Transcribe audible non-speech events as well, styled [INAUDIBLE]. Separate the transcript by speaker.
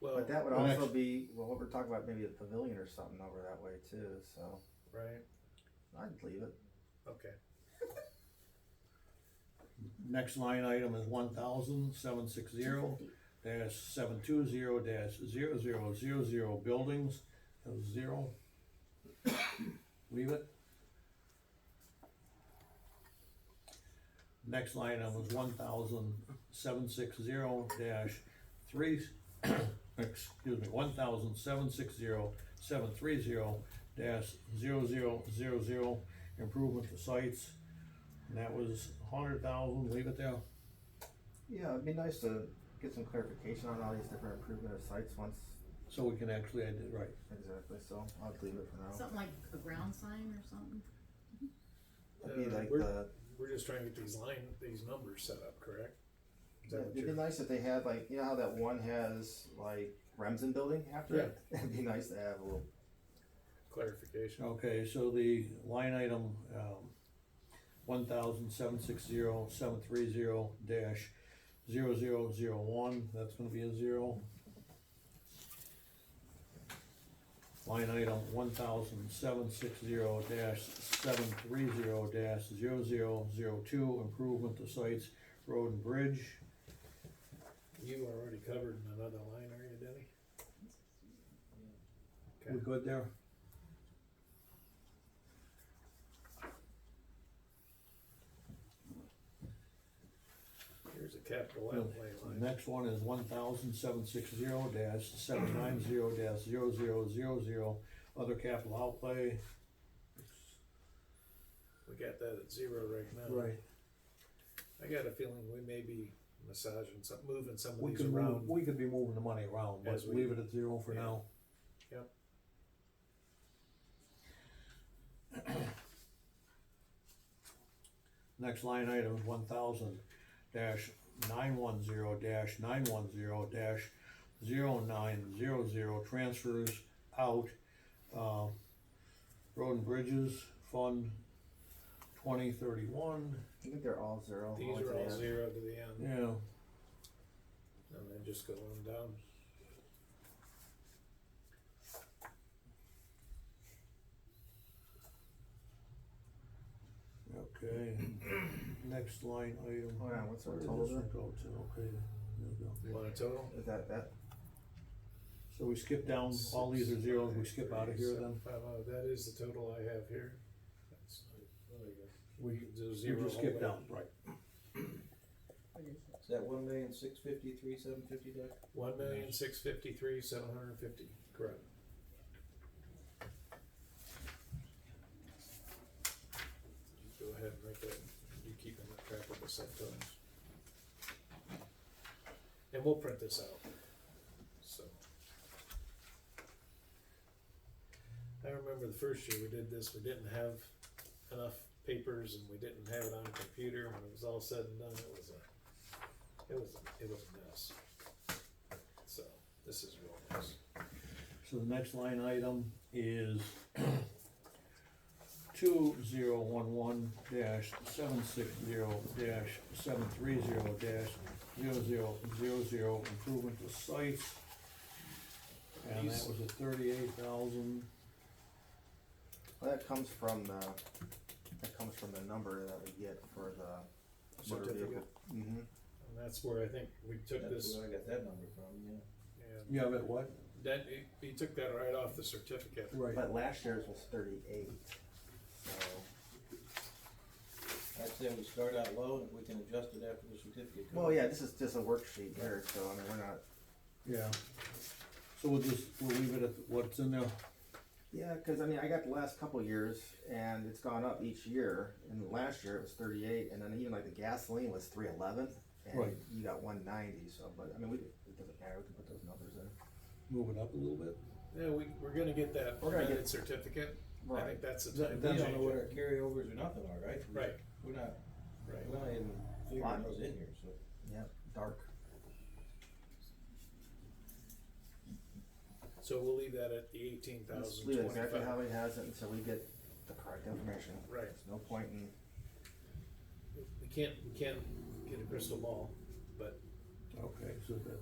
Speaker 1: Well,
Speaker 2: But that would
Speaker 3: The
Speaker 2: also
Speaker 3: next-
Speaker 2: be, well, what we're talking about, maybe a pavilion or something over that way too, so
Speaker 1: right.
Speaker 2: I'd leave it.
Speaker 1: Okay.
Speaker 3: Next line item is one thousand seven six zero dash seven two zero dash zero zero zero zero buildings, that was zero. Leave it. Next line item is one thousand seven six zero dash three, [COUGHS] excuse me, one thousand seven six zero seven three zero dash zero zero zero zero, improvement to sites. And that was a hundred thousand, leave it there.
Speaker 2: Yeah, it'd be nice to get some clarification on all these different improvement of sites once,
Speaker 3: So we can actually add it right.
Speaker 2: exactly, so I'd leave it for now.
Speaker 4: Something like a ground sign or something?
Speaker 2: It'd
Speaker 1: Uh,
Speaker 2: be like
Speaker 1: we're-
Speaker 2: the,
Speaker 1: We're just trying to get these line, these numbers set up, correct? Is that what
Speaker 2: it'd be
Speaker 1: you're-
Speaker 2: nice if they had like, you know how that one has like Remsen building after it? It'd be nice to have a little,
Speaker 1: clarification?
Speaker 3: Okay, so the line item, um, one thousand seven six zero seven three zero dash zero zero zero one, that's gonna be a zero. Line item one thousand seven six zero dash seven three zero dash zero zero zero two, improvement to sites, road and bridge.
Speaker 1: You are already covered in another line, are you, Denny?
Speaker 3: We
Speaker 1: Okay,
Speaker 3: good there?
Speaker 1: here's a capital
Speaker 3: Yeah.
Speaker 1: outlay
Speaker 3: The
Speaker 1: line.
Speaker 3: Next one is one thousand seven six zero dash seven nine zero dash zero zero zero zero, other capital outlay.
Speaker 1: We got that at zero right now. I got a feeling we may be massaging some, moving some of
Speaker 3: We
Speaker 1: these
Speaker 3: could move,
Speaker 1: around.
Speaker 3: we could be moving the money around, but
Speaker 1: As we-
Speaker 3: leave it at zero for
Speaker 1: yeah.
Speaker 3: now.
Speaker 1: Yep.
Speaker 3: [COUGHS] Next line item is one thousand dash nine one zero dash nine one zero dash zero nine zero zero, transfers out, uh, road and bridges, fund twenty thirty-one,
Speaker 2: I think they're all zero.
Speaker 1: These
Speaker 2: all
Speaker 1: are
Speaker 2: to the
Speaker 1: all
Speaker 2: end.
Speaker 1: zero to the end,
Speaker 3: yeah.
Speaker 1: and then just go on down.
Speaker 3: Okay, [COUGHS] next line item.
Speaker 2: Hold on, what's our
Speaker 3: Where did
Speaker 2: total
Speaker 3: this one
Speaker 2: there?
Speaker 3: go to? Okay, there we go.
Speaker 1: You want a total?
Speaker 2: Is that, that,
Speaker 3: So we skip down, all these are zeros, we skip out of here then?
Speaker 1: Five oh, that is the total I have here. That's- oh, there we go.
Speaker 3: We,
Speaker 1: There's
Speaker 3: we
Speaker 1: zero
Speaker 3: just skip
Speaker 1: all the way.
Speaker 3: down, right.
Speaker 5: Is that one million, six fifty-three, seven fifty, Doug?
Speaker 1: One million, six fifty-three, seven hundred and fifty, correct. You Go ahead and make that, you keep in track of the subtotals. And we'll print this out, so. I remember the first year we did this, we didn't have enough papers and we didn't have it on a computer, and it was all said and done, it was a, it was, it was a mess. So this is real nice.
Speaker 3: So the next line item is [CLEARS THROAT] two zero one one dash seven six zero dash seven three zero dash zero zero zero zero, improvement to sites. And that
Speaker 1: These-
Speaker 3: was a thirty-eight thousand,
Speaker 2: well, that comes from the, that comes from the number that we get for the motor vehicle.
Speaker 1: Certificate.
Speaker 2: Mm-hmm.
Speaker 1: And that's where I think we took
Speaker 5: That's
Speaker 1: this,
Speaker 5: where I got that number from, yeah.
Speaker 1: and
Speaker 3: yeah, but what?
Speaker 1: that, he- he took that right off the certificate.
Speaker 3: Right.
Speaker 2: But last year's was thirty-eight, so,
Speaker 5: I'd say we start out low and we can adjust it after the certificate. comes.
Speaker 2: well, yeah, this is just a worksheet here, so I mean, we're not,
Speaker 3: Yeah. So we'll just, we'll leave it at what's in there.
Speaker 2: yeah, cause I mean, I got the last couple years, and it's gone up each year, and last year it was thirty-eight, and then even like the gasoline was three eleven, and
Speaker 3: Right.
Speaker 2: you got one ninety, so, but, I mean, we, it doesn't matter, we can put those numbers in.
Speaker 3: Move it up a little bit.
Speaker 1: Yeah, we, we're gonna get that
Speaker 2: We're gonna get-
Speaker 1: amended certificate. I think that's the time.
Speaker 5: We
Speaker 1: to
Speaker 5: don't
Speaker 1: change
Speaker 5: know
Speaker 1: it.
Speaker 5: what our carryovers or nothing are, right?
Speaker 1: Right,
Speaker 5: We're not,
Speaker 1: right.
Speaker 5: we're not even figuring
Speaker 2: Fine.
Speaker 5: those in here, so.
Speaker 2: Yep, dark,
Speaker 1: So we'll leave that at the eighteen
Speaker 2: let's
Speaker 1: thousand
Speaker 2: leave it exactly
Speaker 1: twenty-five.
Speaker 2: how he has it until we get the correct information,
Speaker 1: Right,
Speaker 2: there's no point in,
Speaker 1: we can't, we can't get a crystal ball, but
Speaker 3: Okay, so that,